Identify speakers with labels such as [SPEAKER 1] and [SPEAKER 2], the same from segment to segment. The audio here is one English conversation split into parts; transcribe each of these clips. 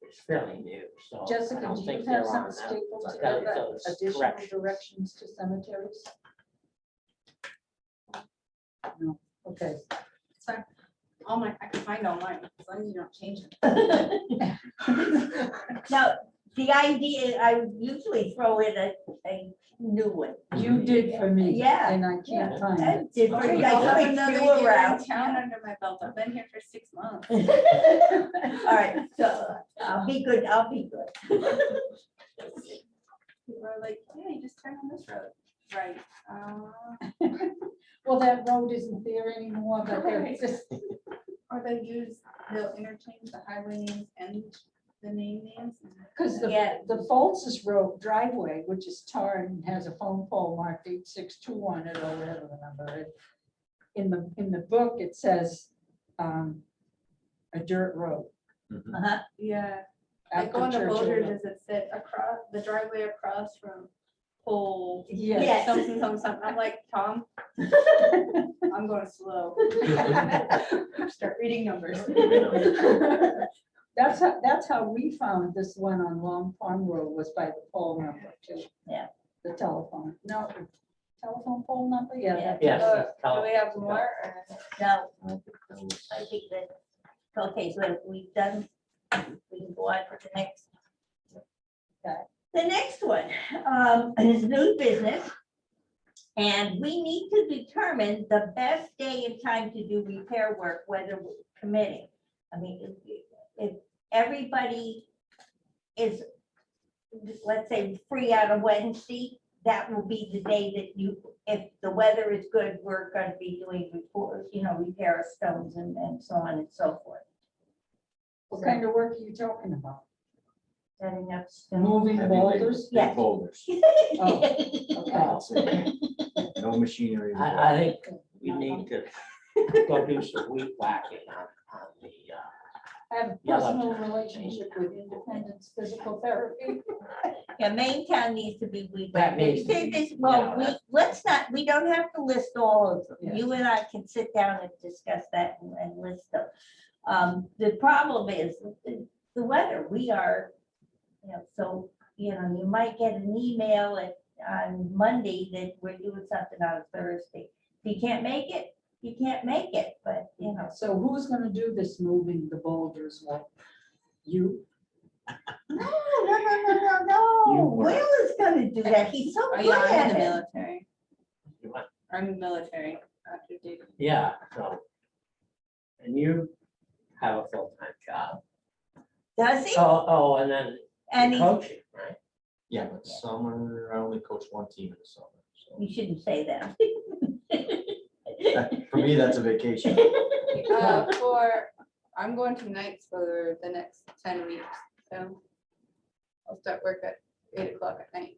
[SPEAKER 1] it's fairly new, so. I
[SPEAKER 2] Jessica,
[SPEAKER 1] don't
[SPEAKER 2] do
[SPEAKER 1] think
[SPEAKER 2] you
[SPEAKER 1] they're
[SPEAKER 2] have some
[SPEAKER 1] on that,
[SPEAKER 2] stapled
[SPEAKER 1] but that
[SPEAKER 2] together
[SPEAKER 1] was
[SPEAKER 2] additional
[SPEAKER 1] correct.
[SPEAKER 2] directions to cemeteries? No, okay.
[SPEAKER 3] It's fine. All Oh my, I can find all mine, as long as you don't change it.
[SPEAKER 4] Now, the idea, I usually throw in a, a new one.
[SPEAKER 2] You did for me.
[SPEAKER 4] Yeah,
[SPEAKER 2] And I can't find
[SPEAKER 4] That's it.
[SPEAKER 3] Oh,
[SPEAKER 4] I
[SPEAKER 3] I'll have
[SPEAKER 4] like
[SPEAKER 3] another
[SPEAKER 4] to
[SPEAKER 3] year in
[SPEAKER 4] around.
[SPEAKER 3] Town under my belt, I've been here for six months.
[SPEAKER 4] All right, so I'll be good, I'll be good.
[SPEAKER 3] People are like, yeah, you just turn on this road. Right. uh,
[SPEAKER 2] it. Well, that road isn't there anymore, but they're
[SPEAKER 3] Right.
[SPEAKER 2] just,
[SPEAKER 3] Or they use, they'll interchange the highway names and the name names.
[SPEAKER 2] because the,
[SPEAKER 4] Yeah.
[SPEAKER 2] the Foltz's Road driveway, which is tarred and has a phone pole marked eight six two on it or whatever the number is. In the, in the book, it says, um, a dirt road.
[SPEAKER 1] Mhm.
[SPEAKER 4] Uh-huh.
[SPEAKER 3] Yeah. Like
[SPEAKER 2] after
[SPEAKER 3] on the
[SPEAKER 2] Churchill
[SPEAKER 3] Boulder,
[SPEAKER 2] Road.
[SPEAKER 3] does it sit across, the driveway across from pole?
[SPEAKER 2] Yes.
[SPEAKER 4] Yes.
[SPEAKER 3] Something, something, something. I'm like, Tom, I'm going slow.
[SPEAKER 1] Mm-hmm.
[SPEAKER 3] Start reading numbers.
[SPEAKER 2] That's how, that's how we found this one on Long Pond Road was by the pole number too.
[SPEAKER 4] Yeah.
[SPEAKER 2] The telephone, no, telephone pole number, yeah.
[SPEAKER 4] Yeah.
[SPEAKER 2] that-
[SPEAKER 1] Yes.
[SPEAKER 3] Uh,
[SPEAKER 1] that's
[SPEAKER 3] Do
[SPEAKER 1] how-
[SPEAKER 3] we have more? or-
[SPEAKER 4] No,
[SPEAKER 1] I think that was-
[SPEAKER 4] I think that, okay, so we've done, we can go on for the next.
[SPEAKER 2] Okay.
[SPEAKER 4] The next one, um, is new business. And we need to determine the best day and time to do repair work, whether we're committing. I mean, if, if everybody is, let's say, free out of Wednesday, that will be the day that you if the weather is good, we're gonna be doing report, you know, repair of stones and, and so on and so forth.
[SPEAKER 2] What kind of work are you talking about?
[SPEAKER 4] Setting up. stones.
[SPEAKER 2] Moving
[SPEAKER 5] Heavy labor.
[SPEAKER 2] boulders?
[SPEAKER 4] Yeah.
[SPEAKER 5] Big boulders.
[SPEAKER 2] Okay.
[SPEAKER 5] No machinery.
[SPEAKER 1] I, I think we need to go do some weed whacking on, on the, uh,
[SPEAKER 2] I have a
[SPEAKER 1] Yeah, like-
[SPEAKER 2] personal relationship with Independence Physical Therapy.
[SPEAKER 4] Yeah, Main Town needs to be. weed
[SPEAKER 1] That
[SPEAKER 4] whacked.
[SPEAKER 1] needs to
[SPEAKER 4] This-
[SPEAKER 1] be-
[SPEAKER 4] this- Well,
[SPEAKER 1] yeah,
[SPEAKER 4] we,
[SPEAKER 1] that-
[SPEAKER 4] let's not, we don't have to list all of them.
[SPEAKER 2] Yeah.
[SPEAKER 4] You and I can sit down and discuss that and, and list them. Um, the problem is the, the weather, we are, you know, so, you know, you might get an email at, on Monday that we're doing something on Thursday. If you can't make it, you can't make it, but, you know,
[SPEAKER 2] So who's gonna do this moving the boulders? Well, You?
[SPEAKER 4] no, no, no, no, no, no.
[SPEAKER 5] You were-
[SPEAKER 4] Will is gonna do that. He's so
[SPEAKER 3] Oh,
[SPEAKER 4] good
[SPEAKER 3] yeah, I'm
[SPEAKER 4] at
[SPEAKER 3] in the
[SPEAKER 4] it.
[SPEAKER 3] military.
[SPEAKER 1] You what?
[SPEAKER 3] I'm military after duty.
[SPEAKER 1] uh, yeah, so. And you have a full-time job.
[SPEAKER 4] Does he?
[SPEAKER 1] Oh, oh, and then
[SPEAKER 4] And
[SPEAKER 1] you're
[SPEAKER 4] he's
[SPEAKER 1] coaching, right?
[SPEAKER 5] Yeah, but summer, I only coach one team in the summer.
[SPEAKER 4] You shouldn't say that.
[SPEAKER 5] So for me, that's a vacation.
[SPEAKER 3] Uh, for, I'm going to nights for the next ten weeks, so I'll start work at eight o'clock at night.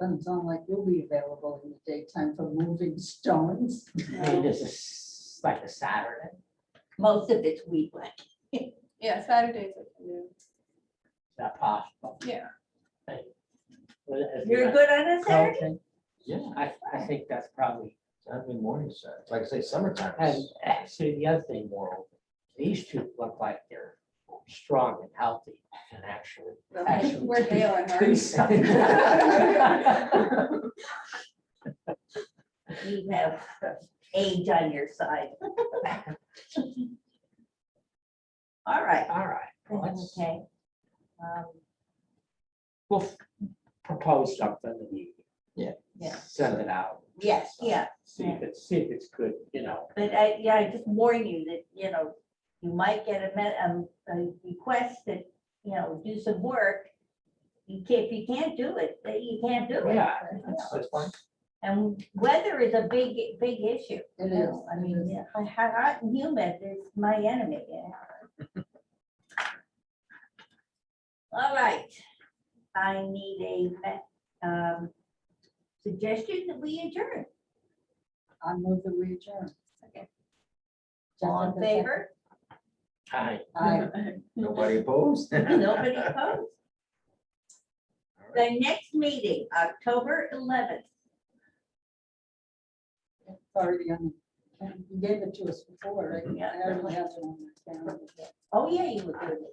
[SPEAKER 2] Doesn't sound like you'll be available in the daytime for moving stones.
[SPEAKER 1] I mean, this is like a Saturday.
[SPEAKER 4] Most of it's weed whacking.
[SPEAKER 3] Yeah, Saturdays I can do,
[SPEAKER 1] Is that possible?
[SPEAKER 3] yeah.
[SPEAKER 1] Well, if
[SPEAKER 4] You're good on a Saturday?
[SPEAKER 1] Coaching,
[SPEAKER 5] Yeah,
[SPEAKER 1] I, I think that's probably,
[SPEAKER 5] Saturday morning, Saturday. Like I say, summertime
[SPEAKER 1] and
[SPEAKER 5] is
[SPEAKER 1] actually, the other thing, Laurel, these two look like they're strong and healthy and actually.
[SPEAKER 3] Well,
[SPEAKER 1] actually
[SPEAKER 3] We're bailing,
[SPEAKER 1] do
[SPEAKER 3] right?
[SPEAKER 1] something.
[SPEAKER 4] You have uh, age on your side. All right.
[SPEAKER 1] All right, well, let's,
[SPEAKER 4] Okay. Um,
[SPEAKER 1] we'll f- propose something and you.
[SPEAKER 5] Yeah.
[SPEAKER 4] Yeah.
[SPEAKER 1] Send it out.
[SPEAKER 4] Yes, yeah,
[SPEAKER 1] See if it's, see if it's good, you know.
[SPEAKER 4] but I, yeah, I just warn you that, you know, you might get a, me- um, a request that, you know, do some work. You can't, if you can't do it, then you can't do it.
[SPEAKER 1] Yeah.
[SPEAKER 5] That's fine.
[SPEAKER 4] And weather is a big, big issue.
[SPEAKER 2] It is.
[SPEAKER 4] Yeah, I
[SPEAKER 2] it
[SPEAKER 4] mean,
[SPEAKER 2] is.
[SPEAKER 4] yeah, I have, I, humid is my enemy. yeah. All right, I need a, um, suggestion that we adjourn.
[SPEAKER 2] I move the region.
[SPEAKER 3] Okay.
[SPEAKER 4] All in favor?
[SPEAKER 1] Hi.
[SPEAKER 2] I,
[SPEAKER 5] Nobody opposed?
[SPEAKER 4] Nobody opposed? The next meeting, October eleventh.
[SPEAKER 2] already on the You gave it to us before, right?
[SPEAKER 4] Yeah.
[SPEAKER 2] I don't have it on my calendar.
[SPEAKER 4] Oh, yeah, you would do it.